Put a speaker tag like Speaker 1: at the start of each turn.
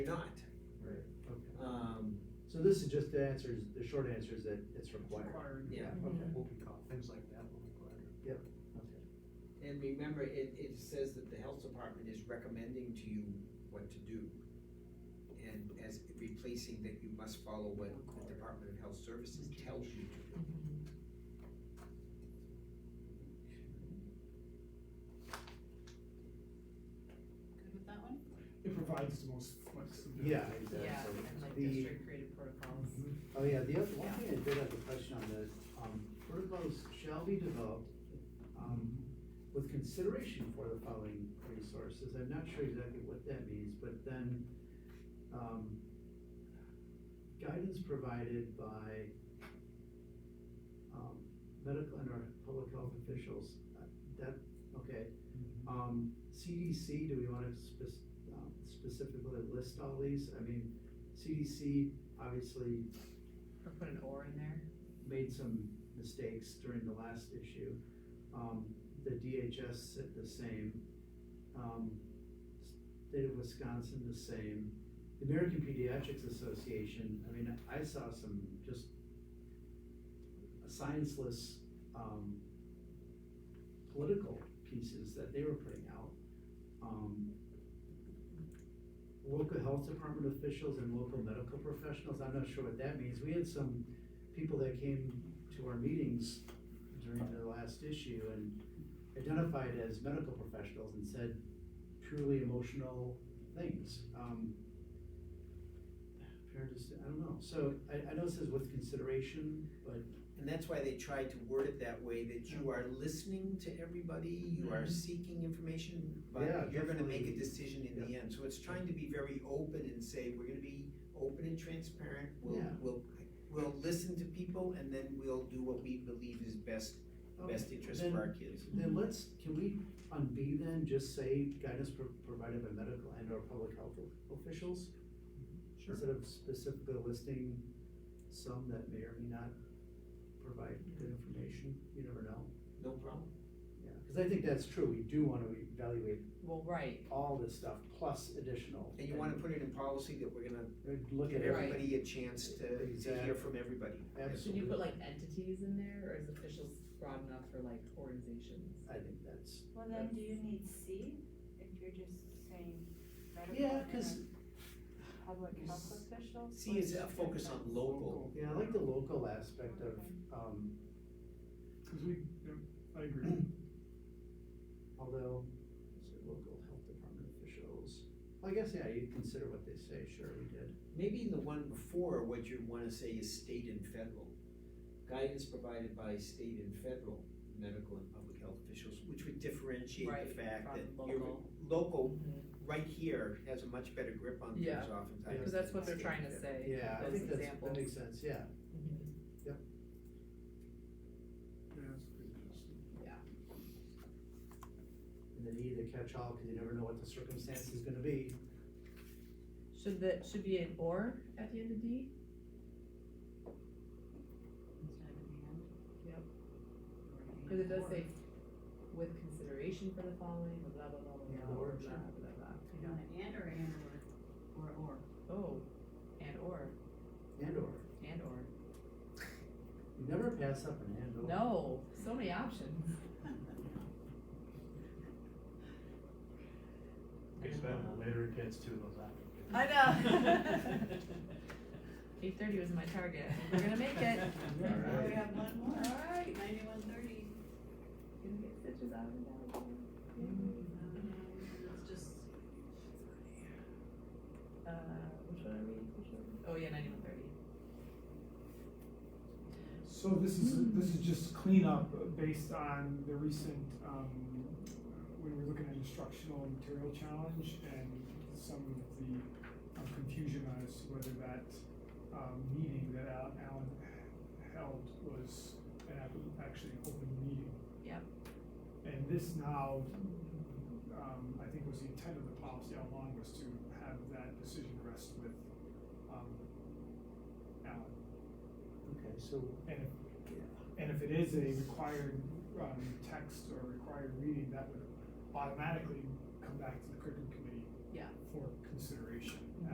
Speaker 1: You're not.
Speaker 2: Right, okay.
Speaker 1: Um,
Speaker 2: So this is just the answers, the short answer is that it's required.
Speaker 1: yeah,
Speaker 2: Okay,
Speaker 3: Mhm.
Speaker 2: okay.
Speaker 4: things like that will be required.
Speaker 1: and remember, it, it says that the health department is recommending to you what to do. And as replacing that you must follow what the Department of Health Services tells you to do.
Speaker 3: Good with that one?
Speaker 4: It provides the most flexibility. Mm-hmm.
Speaker 2: Yeah,
Speaker 3: Yeah,
Speaker 2: exactly.
Speaker 3: and like
Speaker 2: The-
Speaker 3: district created protocols.
Speaker 2: Oh, yeah, the other, one thing I did have a question on this, um, protocols shall be developed, um, with consideration for the following resources, I'm not sure exactly what that means, but then, um, guidance provided by, um, medical and our public health officials, Uh, that, okay.
Speaker 4: Mm-hmm.
Speaker 2: Um, CDC, do we wanna spec- um, specifically list all these? I mean, CDC obviously
Speaker 3: Or put an or in there.
Speaker 2: made some mistakes during the last issue. Um, the DHS said the same. Um, state of Wisconsin, the same. The American Pediatrics Association, I mean, I saw some just scienceless, um, political pieces that they were putting out. Um, local health department officials and local medical professionals, I'm not sure what that means. We had some people that came to our meetings during the last issue and identified as medical professionals and said purely emotional things. Um, Parent is, I don't know, so I, I know it says with consideration, but,
Speaker 1: And that's why they tried to word it that way, that you are listening to everybody, you are
Speaker 3: Mhm.
Speaker 1: seeking information,
Speaker 2: Mm-hmm. Yeah,
Speaker 1: but you're gonna make a
Speaker 2: definitely.
Speaker 1: decision in the end. So it's trying to be very open and say, we're gonna be open and transparent, we'll,
Speaker 2: Yeah.
Speaker 1: we'll, we'll listen to people and then we'll do what we believe is best,
Speaker 2: okay,
Speaker 1: best interest for our kids.
Speaker 2: oh, then let's, can we, on B then, just say guidance pro- provided by medical and or public health o- officials?
Speaker 4: Sure.
Speaker 2: Instead of specifically listing some that may or may not provide good information, you never know.
Speaker 1: No problem.
Speaker 2: Yeah, because I think that's true, we do want to evaluate
Speaker 3: Well, right,
Speaker 2: all this stuff plus additional.
Speaker 1: And you wanna put it in policy that we're gonna
Speaker 2: and Look
Speaker 1: give
Speaker 2: at everything,
Speaker 1: everybody a chance to, to hear from everybody.
Speaker 3: should you
Speaker 2: absolutely,
Speaker 3: put like entities in there, or is officials broad enough for like organizations?
Speaker 2: I think that's,
Speaker 5: Well, then do you need C if you're just saying medical?
Speaker 2: yeah,
Speaker 5: and
Speaker 2: because,
Speaker 5: Public health officials?
Speaker 1: See, it's a focus on local,
Speaker 2: yeah, I like the local aspect of, um,
Speaker 4: Cause we, yeah, I agree.
Speaker 2: Mm. although, so local health department officials. I guess, yeah, you consider what they say, sure, we did.
Speaker 1: Maybe in the one before, what you wanna say is state and federal. Guidance provided by state and federal medical and public health officials, which would differentiate the
Speaker 3: Right,
Speaker 1: fact that
Speaker 3: from
Speaker 1: your
Speaker 3: local.
Speaker 1: local,
Speaker 3: Mm-hmm.
Speaker 1: right here, has a much better grip on things
Speaker 3: Yeah,
Speaker 1: oftentimes.
Speaker 3: Because that's what they're
Speaker 1: than
Speaker 3: trying to
Speaker 1: state.
Speaker 3: say,
Speaker 2: Yeah, I
Speaker 3: those
Speaker 2: think that's, that
Speaker 3: examples.
Speaker 2: makes sense, yeah,
Speaker 3: Mhm.
Speaker 4: Yeah, that's good, that's-
Speaker 2: and then either catch all, because you never know what the circumstance is gonna be.
Speaker 3: Should that, should be an or at the end of D? Cause it does say with consideration for the following, blah, blah, blah, blah, blah, blah,
Speaker 2: Or.
Speaker 3: blah, blah, blah.
Speaker 5: You want an and or and or, or or?
Speaker 3: Oh, and or,
Speaker 2: And or,
Speaker 3: and or,
Speaker 2: you never pass up an and or.
Speaker 3: no, so many options.
Speaker 6: Gets better the later it gets to those applicants.
Speaker 3: I know. Eight thirty was my target, I think we're gonna make it.
Speaker 5: Oh, we
Speaker 2: Alright.
Speaker 5: have one more,
Speaker 3: Alright.
Speaker 5: ninety-one thirty.
Speaker 3: Gonna get stitches out of it.
Speaker 4: Mm-hmm.
Speaker 5: Let's just,
Speaker 3: Uh, which one are we, which one? Oh, yeah, ninety-one thirty.
Speaker 4: So this is, this is just cleanup uh, based on the recent, um, we were looking at instructional material challenge and some of the um, confusion as to whether that, um, meeting that Al- Alan held was an act- actually an open meeting.
Speaker 3: Yep.
Speaker 4: And this now, um, I think was the intent of the policy all along was to have that decision rest with, um, Alan.
Speaker 2: Okay, so
Speaker 4: And if, and if it is a required, um, text or required reading, that would automatically come back to the curriculum committee.
Speaker 3: Yeah.
Speaker 4: For consideration